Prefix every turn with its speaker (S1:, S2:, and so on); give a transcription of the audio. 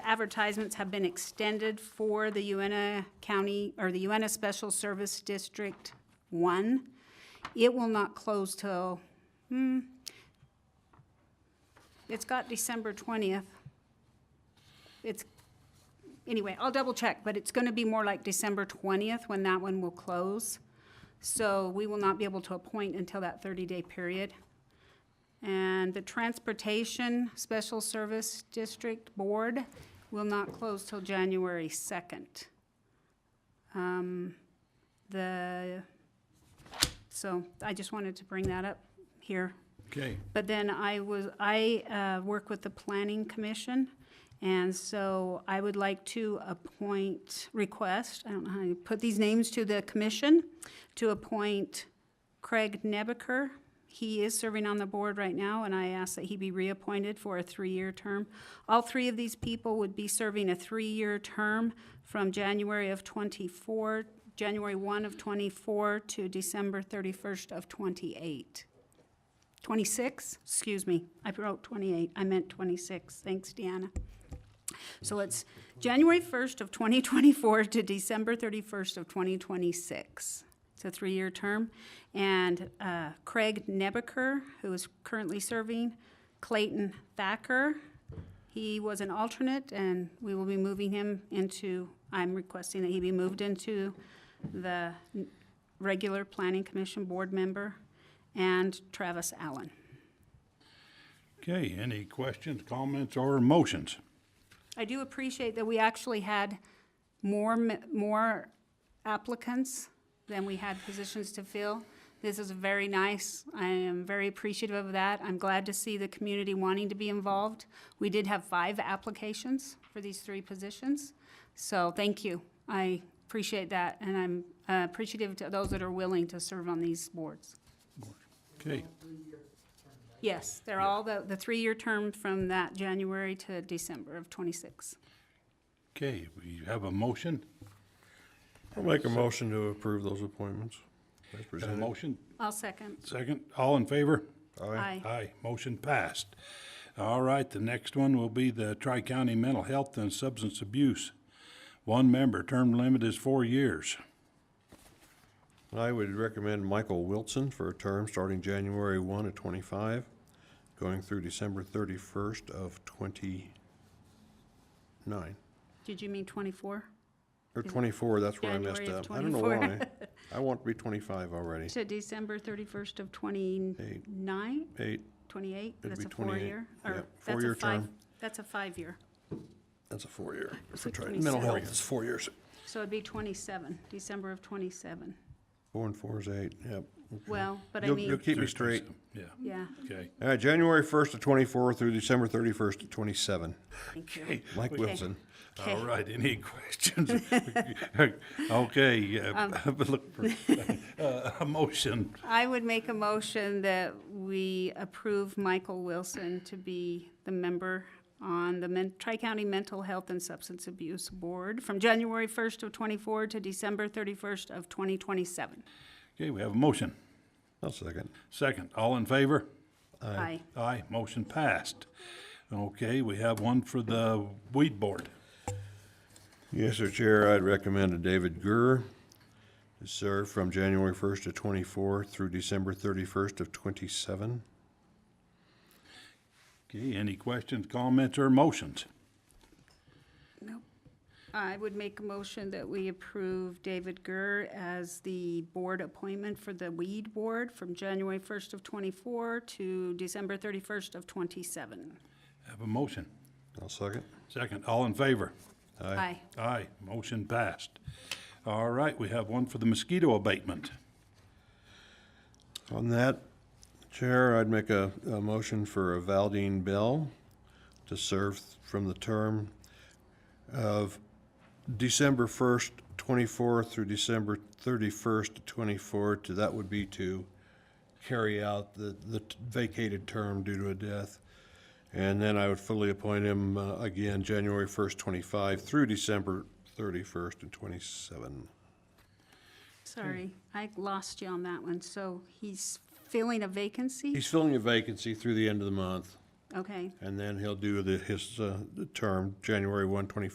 S1: advertisements have been extended for the UNA County, or the UNA Special Service District One. It will not close till, hmm, it's got December twentieth. It's, anyway, I'll double check, but it's gonna be more like December twentieth when that one will close. So we will not be able to appoint until that thirty-day period. And the Transportation Special Service District Board will not close till January 2nd. Um, The, so I just wanted to bring that up here.
S2: Okay,
S1: But then I was, I uh, work with the Planning Commission, and so I would like to appoint, request, I don't know how you put these names to the commission, to appoint Craig Nebaker. He is serving on the board right now, and I ask that he be reappointed for a three-year term. All three of these people would be serving a three-year term from January of '24, January 1 of '24 to December 31st of '28. 26, excuse me, I wrote 28, I meant 26, thanks Deanna. So it's January 1st of 2024 to December 31st of 2026. It's a three-year term. And uh, Craig Nebaker, who is currently serving, Clayton Thacker, he was an alternate, and we will be moving him into, I'm requesting that he be moved into the n- regular Planning Commission Board member, and Travis Allen.
S2: okay, any questions, comments, or motions?
S1: I do appreciate that we actually had more, m- more applicants than we had positions to fill. This is very nice. I am very appreciative of that. I'm glad to see the community wanting to be involved. We did have five applications for these three positions, so thank you. I appreciate that, and I'm uh, appreciative to those that are willing to serve on these boards.
S2: Okay,
S1: Yes, they're all the, the three-year term from that January to December of twenty-six.
S2: okay, we have a motion,
S3: I'll make a motion to approve those appointments. as
S2: Got a
S3: presented.
S2: motion,
S1: I'll second.
S2: second, all in favor?
S1: Aye.
S3: Uh,
S2: Aye, motion passed. All right, the next one will be the Tri-County Mental Health and Substance Abuse. One member, term limit is four years.
S3: I would recommend Michael Wilson for a term starting January one of twenty-five, going through December thirty-first of twenty-nine,
S1: Did you mean twenty-four?
S3: or twenty-four, that's where I messed
S1: January of
S3: up. I don't know
S1: 24.
S3: why. I want to be twenty-five already.
S1: To December thirty-first of twenty-nine,
S3: Eight,
S1: twenty-eight?
S3: It'd
S1: That's
S3: be
S1: a
S3: 28,
S1: four-year? or
S3: yeah,
S1: that's a
S3: four-year
S1: five-
S3: term.
S1: That's a five-year,
S3: that's a four-year.
S1: So
S3: for tri- Mental
S1: 27.
S3: health is four years.
S1: so it'd be twenty-seven, December of twenty-seven.
S3: Four and four is eight, yep. okay.
S1: Well, but I
S3: Mm-hmm. You'll, you'll
S1: mean,
S3: keep me straight.
S2: Yeah,
S1: yeah,
S2: okay.
S3: All right, January first to twenty-four through December thirty-first to twenty-seven.
S1: thank you.
S2: Hey,
S3: Mike Wilson.
S1: Okay.
S2: All right, any questions? Okay,
S1: Um.
S2: uh, look for uh, a motion.
S1: I would make a motion that we approve Michael Wilson to be the member on the Men- Tri-County Mental Health and Substance Abuse Board from January 1st of '24 to December 31st of 2027.
S2: Okay, we have a motion.
S3: I'll second.
S2: Second, all in favor?
S1: Aye.
S2: Aye, motion passed. Okay, we have one for the weed board.
S3: Yes, sir, Chair, I'd recommend a David Gurr to serve from January first to twenty-four through December thirty-first of twenty-seven.
S2: Okay, any questions, comments, or motions?
S1: Nope. I would make a motion that we approve David Gurr as the board appointment for the weed board from January 1st of '24 to December 31st of '27.
S2: Have a motion.
S3: I'll second.
S2: Second, all in favor?
S1: Aye.
S2: Aye, motion passed. All right, we have one for the mosquito abatement.
S3: On that, Chair, I'd make a, a motion for a Valdine Bell to serve from the term of December first, twenty-four through December thirty-first, twenty-four, to, that would be to carry out the, the vacated term due to a death. And then I would fully appoint him, uh, again, January first, twenty-five through December thirty-first and twenty-seven.
S1: Sorry, I lost you on that one. So he's filling a vacancy?
S3: He's filling a vacancy through the end of the month.
S1: Okay.
S3: And then he'll do the, his, uh, the term, January 1, 24